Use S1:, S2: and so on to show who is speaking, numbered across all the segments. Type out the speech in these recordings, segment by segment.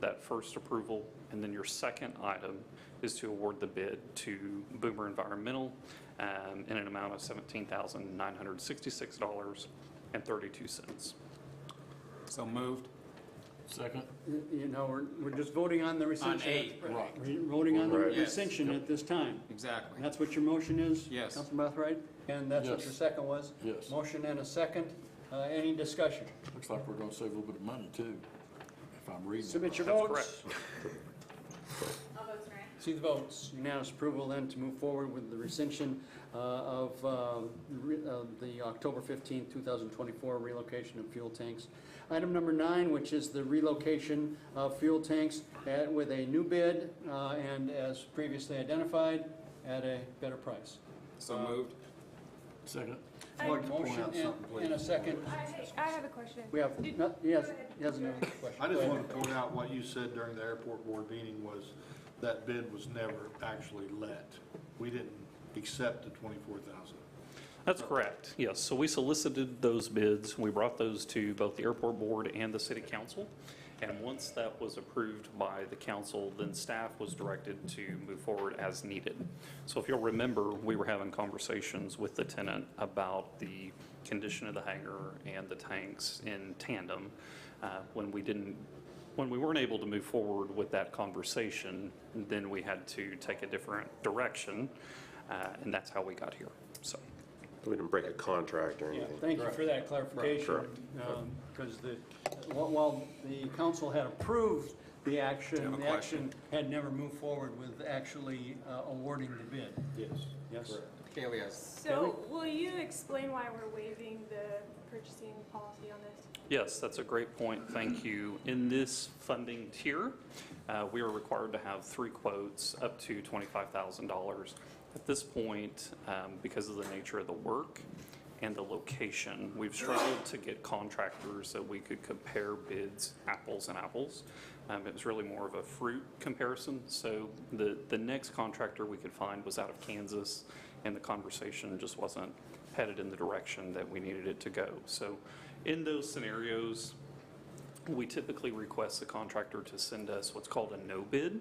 S1: that first approval. And then your second item is to award the bid to Boomer Environmental um, in an amount of $17,966.32.
S2: So moved.
S3: Second.
S4: You you know, we're, we're just voting on the rescission.
S3: eight, right.
S4: We're voting on the
S5: Right.
S2: Yes.
S4: rescission at this time. And
S2: Exactly.
S4: that's what your motion is?
S2: Yes.
S4: Councilman Boatright? And that's what
S5: Yes.
S4: your second was?
S5: Yes.
S4: Motion and a second. Uh, Any discussion?
S5: Looks like we're gonna save a little bit of money too, if I'm reading.
S4: Submit your
S1: That's
S4: votes.
S6: All votes are in.
S4: See the votes. Unanimous approval then to move forward with the rescission uh, of um, re- uh, the October 15, 2024 relocation of fuel tanks. Item number nine, which is the relocation of fuel tanks at- with a new bid uh, and as previously identified, at a better price.
S2: So moved.
S5: Second.
S7: I'd like to point
S4: Motion
S7: out
S4: and-
S7: something, please.
S4: And a second.
S7: I, I have a question.
S4: We have,
S7: Did-
S4: no-
S7: go
S4: yes,
S7: ahead.
S4: he has another question.
S7: I
S8: I just
S4: Go
S8: want
S4: ahead.
S8: to point out what you said during the airport board meeting was that bid was never actually let. We didn't accept the 24,000.
S1: That's correct, yes. So we solicited those bids, we brought those to both the airport board and the city council. And once that was approved by the council, then staff was directed to move forward as needed. So if you'll remember, we were having conversations with the tenant about the condition of the hangar and the tanks in tandem. Uh, When we didn't when we weren't able to move forward with that conversation, then we had to take a different direction, uh, and that's how we got here. So,
S9: We didn't break a contract or
S4: Yeah,
S9: anything.
S4: Thank you for that clarification.
S9: Correct.
S4: Because the, while- while the council had approved the action,
S2: have a
S4: the action had never moved forward with actually uh, awarding the bid.
S8: Yes.
S4: Yes?
S2: Kaylee has
S7: So will you explain why we're waiving the purchasing policy on this?
S1: yes, that's a great point. Thank you. In this funding tier, uh, we are required to have three quotes up to $25,000. At this point, um, because of the nature of the work and the location, we've struggled to get contractors that we could compare bids apples and apples. Um, It was really more of a fruit comparison. So the, the next contractor we could find was out of Kansas, and the conversation just wasn't headed in the direction that we needed it to go. So in those scenarios, we typically request the contractor to send us what's called a no bid,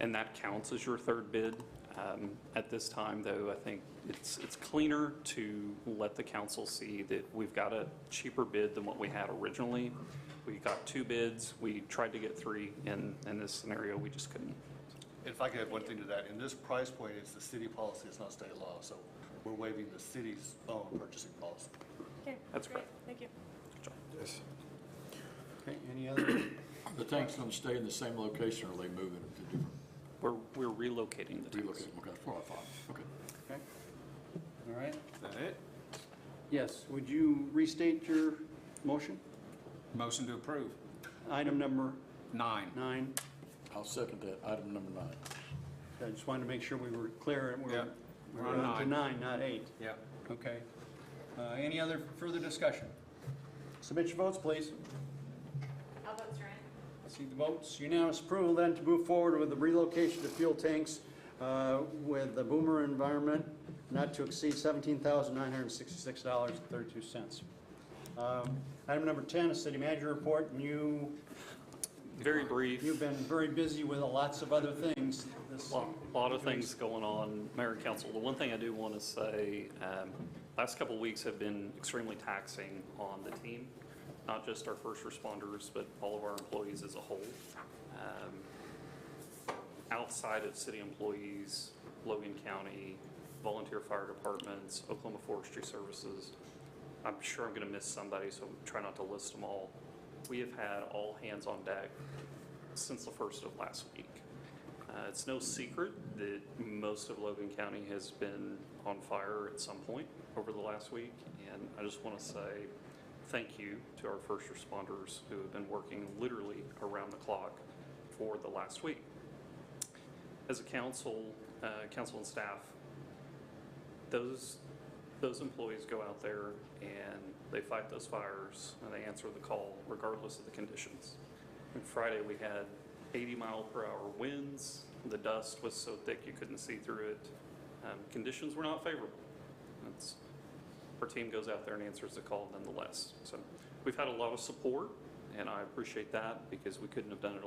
S1: and that counts as your third bid. Um, At this time, though, I think it's, it's cleaner to let the council see that we've got a cheaper bid than what we had originally. We got two bids, we tried to get three, and in this scenario, we just couldn't.
S10: If I could add one thing to that, in this price point, it's the city policy, it's not state law, so we're waiving the city's own purchasing policy.
S7: Okay,
S1: That's
S7: great,
S1: correct.
S7: thank you.
S9: Yes.
S4: Okay, any other?
S5: The tank's gonna stay in the same location or are they moving it to different,
S1: We're, we're relocating the tanks.
S5: relocating? Okay, that's what I thought. Okay.
S4: Okay. All right.
S2: Is that it?
S4: Yes, would you restate your motion?
S2: Motion to approve.
S4: Item number
S2: Nine.
S4: nine.
S5: I'll second that. Item number nine.
S4: I just wanted to make sure we were clear and
S2: Yeah,
S4: we're,
S2: we're
S4: we're
S2: on
S4: on to
S2: nine.
S4: nine, not eight.
S2: Yeah.
S4: Okay. Uh, Any other further discussion? Submit your votes, please.
S6: All votes are in.
S4: See the votes. Unanimous approval then to move forward with the relocation of fuel tanks uh, with the Boomer Environment not to exceed $17,966.32. Um, Item number 10, is city manager report, and you,
S1: Very brief.
S4: you've been very busy with lots of other things this
S1: lot, lot of things going on, Mayor and Council. The one thing I do want to say, um, last couple of weeks have been extremely taxing on the team, not just our first responders, but all of our employees as a whole. Um, outside of city employees, Logan County, volunteer fire departments, Oklahoma Forestry Services. I'm sure I'm going to miss somebody, so try not to list them all. We have had all hands on deck since the first of last week. Uh, It's no secret that most of Logan County has been on fire at some point over the last week, and I just want to say thank you to our first responders who have been working literally around the clock for the last week. As a council, uh, council and staff, those, those employees go out there and they fight those fires and they answer the call regardless of the conditions. And Friday, we had 80 mile per hour winds. The dust was so thick you couldn't see through it. Um, Conditions were not favorable. That's, our team goes out there and answers the call nonetheless. So we've had a lot of support and I appreciate that because we couldn't have done it